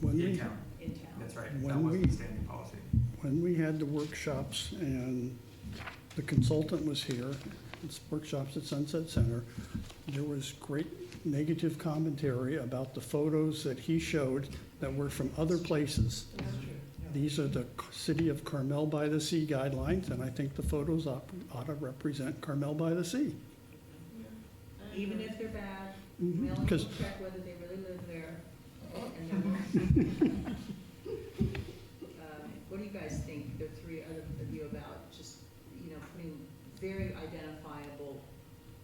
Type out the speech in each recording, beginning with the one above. When In we, town, in town. that's right, When that wasn't we- a standing policy. when we had the workshops and the consultant was here, it's workshops at Sunset Center, there was great negative commentary about the photos that he showed that were from other places. That's true. Yeah. These are the C- City of Carmel by the Sea guidelines, and I think the photos ought ought to represent Carmel by the Sea. Even if they're bad, Mm-hmm. we only Because check whether they really live there. and they're not. Um, What do you guys think, the three other of you about just, you know, putting very identifiable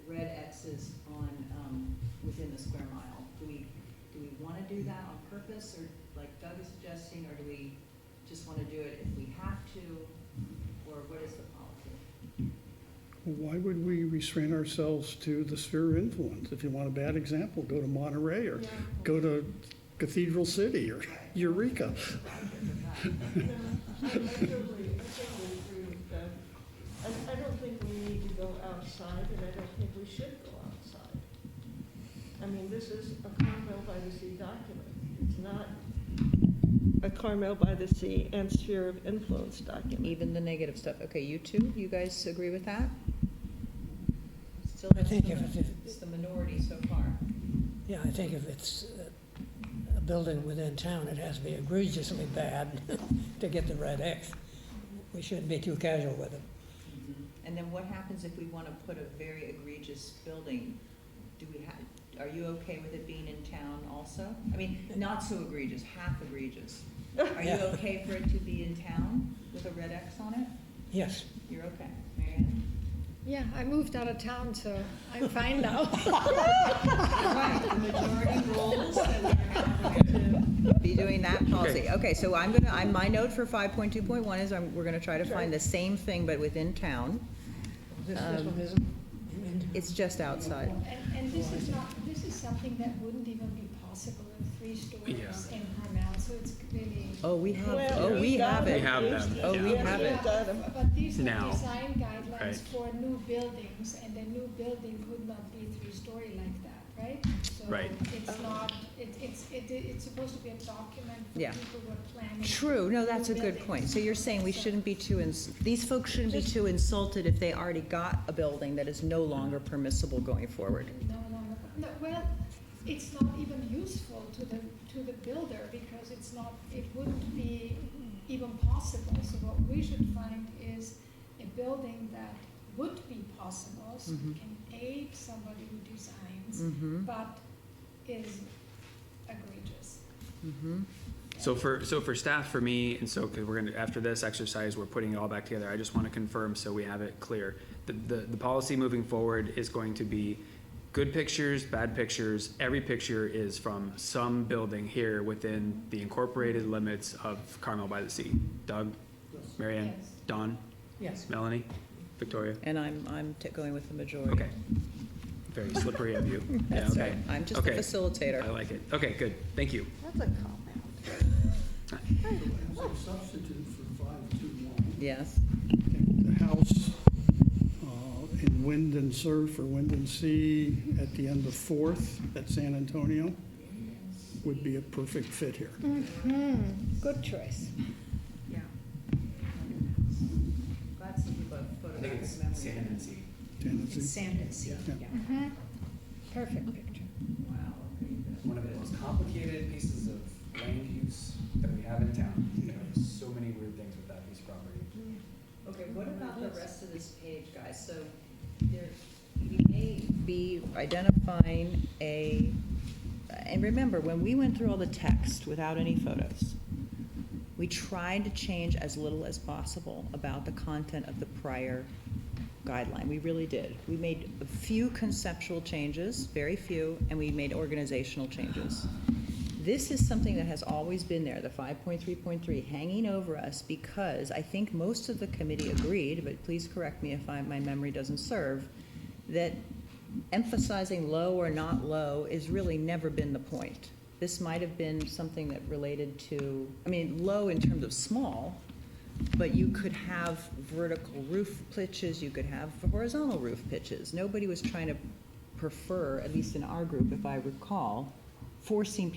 red X's on, um, within the square mile? Do we, do we want to do that on purpose, or like Doug is suggesting, or do we just want to do it if we have to? Or what is the policy? why would we restrain ourselves to the sphere of influence? If you want a bad example, go to Monterey or go to Cathedral City or Eureka. I totally, I totally agree with that. I, I don't think we need to go outside, and I don't think we should go outside. I mean, this is a Carmel by the Sea document. It's not a Carmel by the Sea and sphere of influence document. Even the negative stuff. Okay, you two, you guys agree with that? Still, I think if it's- It's the minority so far. Yeah, I think if it's uh, a building within town, it has to be egregiously bad to get the red X. We shouldn't be too casual with it. And then what happens if we want to put a very egregious building? Do we have, are you okay with it being in town also? I mean, not so egregious, half egregious. Are you Yeah. okay for it to be in town with a red X on it? Yes, You're okay, Marianne? Yeah, I moved out of town, so I'm fine now. Right, the majority rules that we're having to be doing that policy. Okay, so I'm gonna, I'm, my note for five point two point one is I'm, we're gonna try to find the same thing but within town. this, this Um, one isn't. It's just outside. And, and this is not, this is something that wouldn't even be possible in three stores in Carmel, so it's really. Oh, we have, Well, oh, we we've got have it. them. have We've- them, Oh, we yes, have we've it. got them. uh, But these are Now. design Right. guidelines for new buildings, and the new building would not be three-story like that, right? Right. So it's not, it, it's, it, it's supposed to be a document for Yeah. people who are planning. True, no, that's a new good buildings. point. So you're saying we So- shouldn't be too, ins- these folks shouldn't be too insulted if they already got a building that is no longer permissible going forward. No, no, no, no, well, it's not even useful to the, to the builder because it's not, it wouldn't be even possible. So what we should find is a building that would be possible, so we Mhm. can aid somebody who designs, Mm-hmm, but is egregious. Mm-hmm. So for, so for staff, for me, and so, because we're gonna, after this exercise, we're putting it all back together, I just want to confirm so we have it clear. The, the, the policy moving forward is going to be good pictures, bad pictures, every picture is from some building here within the incorporated limits of Carmel by the Sea. Doug, Mary Ann, Yes. Don, Yes. Melanie, Victoria? and I'm, I'm t- going with the majority. Okay. Very slippery of you. Yeah, That's okay. right. I'm just the Okay. I facilitator. like it. Okay, good, thank you. That's a comment. Substitute for five two one. Yes. the house uh, in Wind and Surf for Wind and Sea at the end of Fourth at San Antonio would be a perfect fit here. Good choice. Yeah. Glad some people have photographic memory. sea. Tennessee. sea, Yeah. yeah. Perfect picture. Wow, okay, good. One of the most complicated pieces of land use that we have in town. There are so many weird things with that piece of property. Okay, what about the rest of this page, guys? So there, we may be identifying a, and remember, when we went through all the text without any photos, we tried to change as little as possible about the content of the prior guideline. We really did. We made a few conceptual changes, very few, and we made organizational changes. This is something that has always been there, the five point three point three, hanging over us because I think most of the committee agreed, but please correct me if I, my memory doesn't serve, that emphasizing low or not low is really never been the point. This might have been something that related to, I mean, low in terms of small, but you could have vertical roof pitches, you could have horizontal roof pitches. Nobody was trying to prefer, at least in our group, if I recall, forcing people